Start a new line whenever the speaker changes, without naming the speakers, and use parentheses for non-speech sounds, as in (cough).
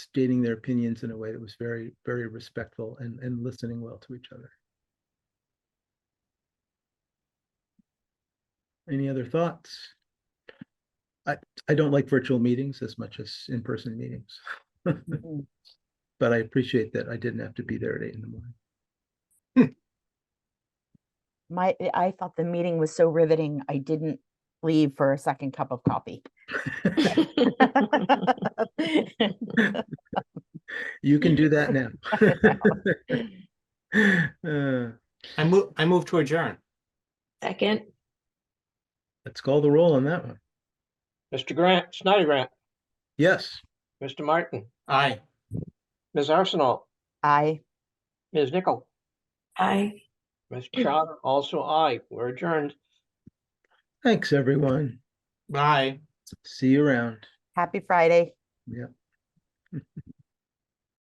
stating their opinions in a way that was very, very respectful and, and listening well to each other. Any other thoughts? I, I don't like virtual meetings as much as in-person meetings.
Mm-hmm.
But I appreciate that I didn't have to be there at eight in the morning.
My, I thought the meeting was so riveting, I didn't leave for a second cup of coffee.
You can do that now. (laughs) Uh,
I move, I move to adjourn.
(laughs) Second,
Let's call the roll on that one.
Mr. Grant, Snyder Grant,
Yes,
Mr. Martin,
Aye.
Ms. Arsenal,
I,
Ms. Nichol,
aye.
Ms. Chowder, also I. We're adjourned.
thanks, everyone.
Bye.
See you around.
happy Friday.
Yeah.